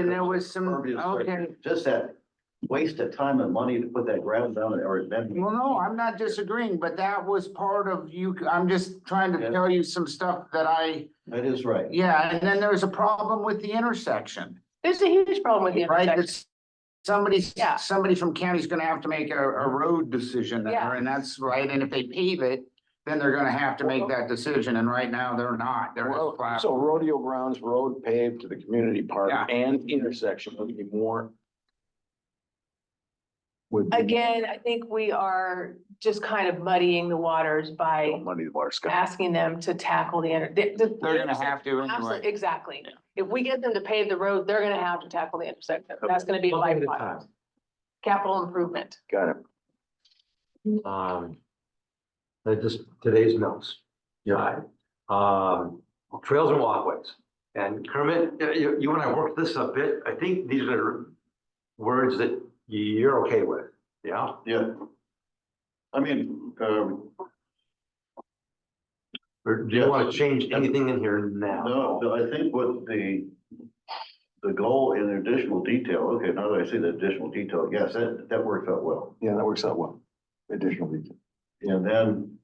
And there was some, Impervious okay, surface. Just that waste of time and money to put that ground down or then. well, no, I'm not disagreeing, but that was part of you, I'm just trying Yeah. to tell you some stuff that I, That is right. yeah, and then there was a problem with the intersection, There's a huge problem with the right? intersection. That's, somebody, Yeah. somebody from county's gonna have to make a, a road decision there, Yeah. and that's right, and if they pave it, then they're gonna have to make that decision, and right now, they're not, they're. Well, flat. So rodeo grounds, road paved to the community park Yeah. and intersection would be more. Would. be Again, I think we are just kind of muddying the waters more by Money to our sky. asking them to tackle the, inter- the- the- They're gonna have to Absolutely, anyway. exactly. If we get them to pave the road, they're gonna have to tackle the intersection. Okay. That's gonna be a One thing at a lifeline. Capital improvement. Got it. Um, I just, today's notes. Yeah. Um, trails and walkways. And Kermit, you- you, you and I worked this a bit. I think these are words that you're okay with, yeah? Yeah. I mean, um, Or do you want to change anything in here now? no, but I think what the, the goal in additional detail, okay, now that I see the additional detail, yes, that, that works out well. Yeah, that works out well. Additional detail. And then,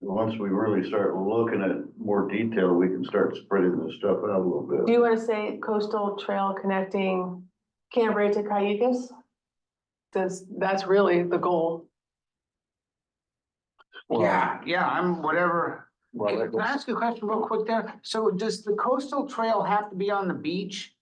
once we really start looking at more detail, we can start spreading this stuff out a little bit. Do you wanna say coastal trail connecting Cambria to Cayugas? That's, that's really the goal. Well, Yeah, yeah, I'm whatever. well, that Can I goes- ask you a question real quick there? So does the coastal trail have to be on the beach?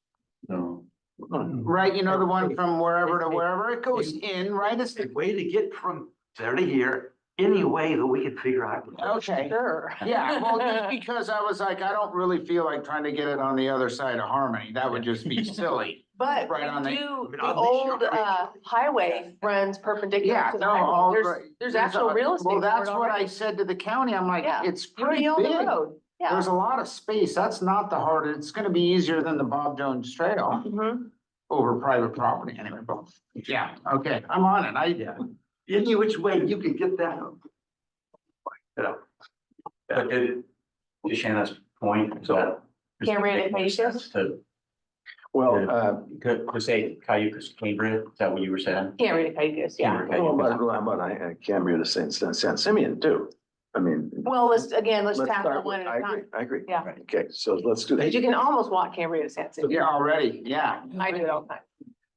No. Right, you know, the one from wherever to wherever it goes in, right? It's, A way to get from there to here, any way that we can figure out. okay. Sure. Yeah, well, just because I was like, I don't really feel like trying to get it on the other side of Harmony. That would just be silly. But Right on the- we I do, mean, the on the shore, old right? uh highway runs perpendicular Yeah, to the no, all highway. right. There's, there's actual a- real estate. Well, for it that's what I already. said to the county. I'm like, Yeah, it's You pretty own the big. road, yeah. There's a lot of space. That's not the hard, it's gonna be easier than the Bob Jones Trail Mhm. over private property anyway, but, yeah, okay, I'm on it. I, Yeah. Any which way you can get that. But to to Shanna's point, so. Cambria to Cayugas? To, Well, uh, to to say Cayugas, Cambria, is that what you were saying? Can't read Cayugas, yeah. Cambria, how Cayugas. about, how about I, I Cambria to San, San San Simeon too? I mean. Well, let's, again, let's let's tackle start one with- at I a agree, time. I agree. Yeah. Right. Okay, so let's do that. Because you can almost walk Cambria to San Simeon. yeah, already, yeah. I do it all the time.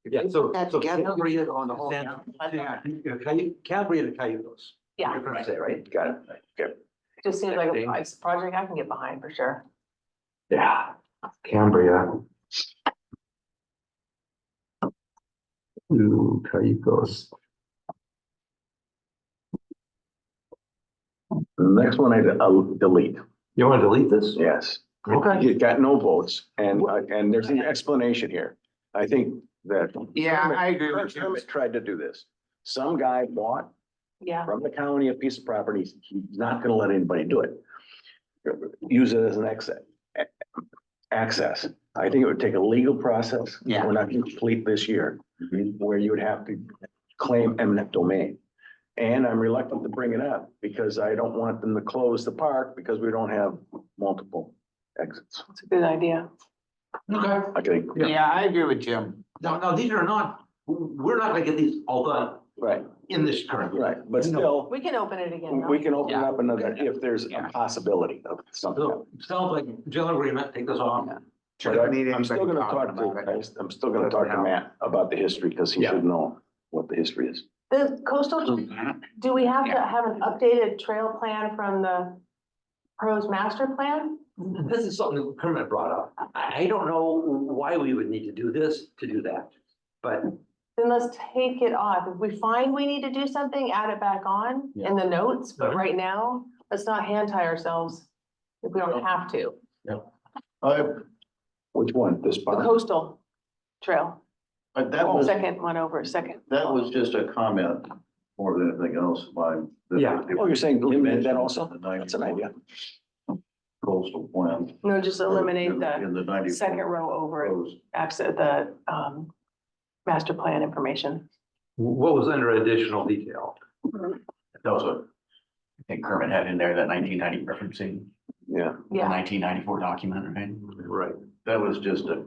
Yeah, so. That so together, Cambria to on the whole San- county. Yeah, Cayu- Cambria to Cayugas. Yeah. You're gonna say, right? Got it. Just seems like a Interesting. it's a project I can get behind for sure. Yeah, Cambria. To Caicos. The next one I I'll delete. You wanna delete this? Yes. Okay. You got no votes and, uh, and there's an explanation here. I think that. Yeah, I agree with you. Kermit tried to do this. Some guy bought Yeah. from the county a piece of property. He's not gonna let anybody do it. Use it as an exit. Access. I think it would take a legal process. Yeah. We're not complete this year, where you would have to claim eminent domain. And I'm reluctant to bring it up because I don't want them to close the park because we don't have multiple exits. It's a good idea. Okay. I think, Yeah, I agree with Jim. No, no, these are not, we're not gonna get these all done right, in this current. year. right, but still, We can open it again. though. we can open it up another, Yeah. if there's a Yeah. possibility of something. So, sounds like general agreement, take this off. But I- I'm still gonna talk to, I- I'm still gonna talk to Matt about the history, because he Yeah. should know what the history is. The coastal, do we have to have an updated trail plan from the pros master plan? This is something that Kermit brought up. I, I don't know why we would need to do this to do that. But Then let's take it off. If we find we need to do something, add it back on in the notes, but Yeah. right now, let's not hand tie ourselves if we don't have to. I, Which one, this The part? coastal trail, I- that was. Oh, second one over, second. That was just a comment more than anything else by. the- Yeah. Oh, you're saying eliminate that also? The That's an idea. Coastal plan. No, just eliminate the In the ninety. second row over, proposed. access the, um, master plan information. what was under additional detail? That was what I think Kermit had in there, that nineteen ninety referencing, Yeah, the Yeah, nineteen ninety-four document, right? Right. That was just a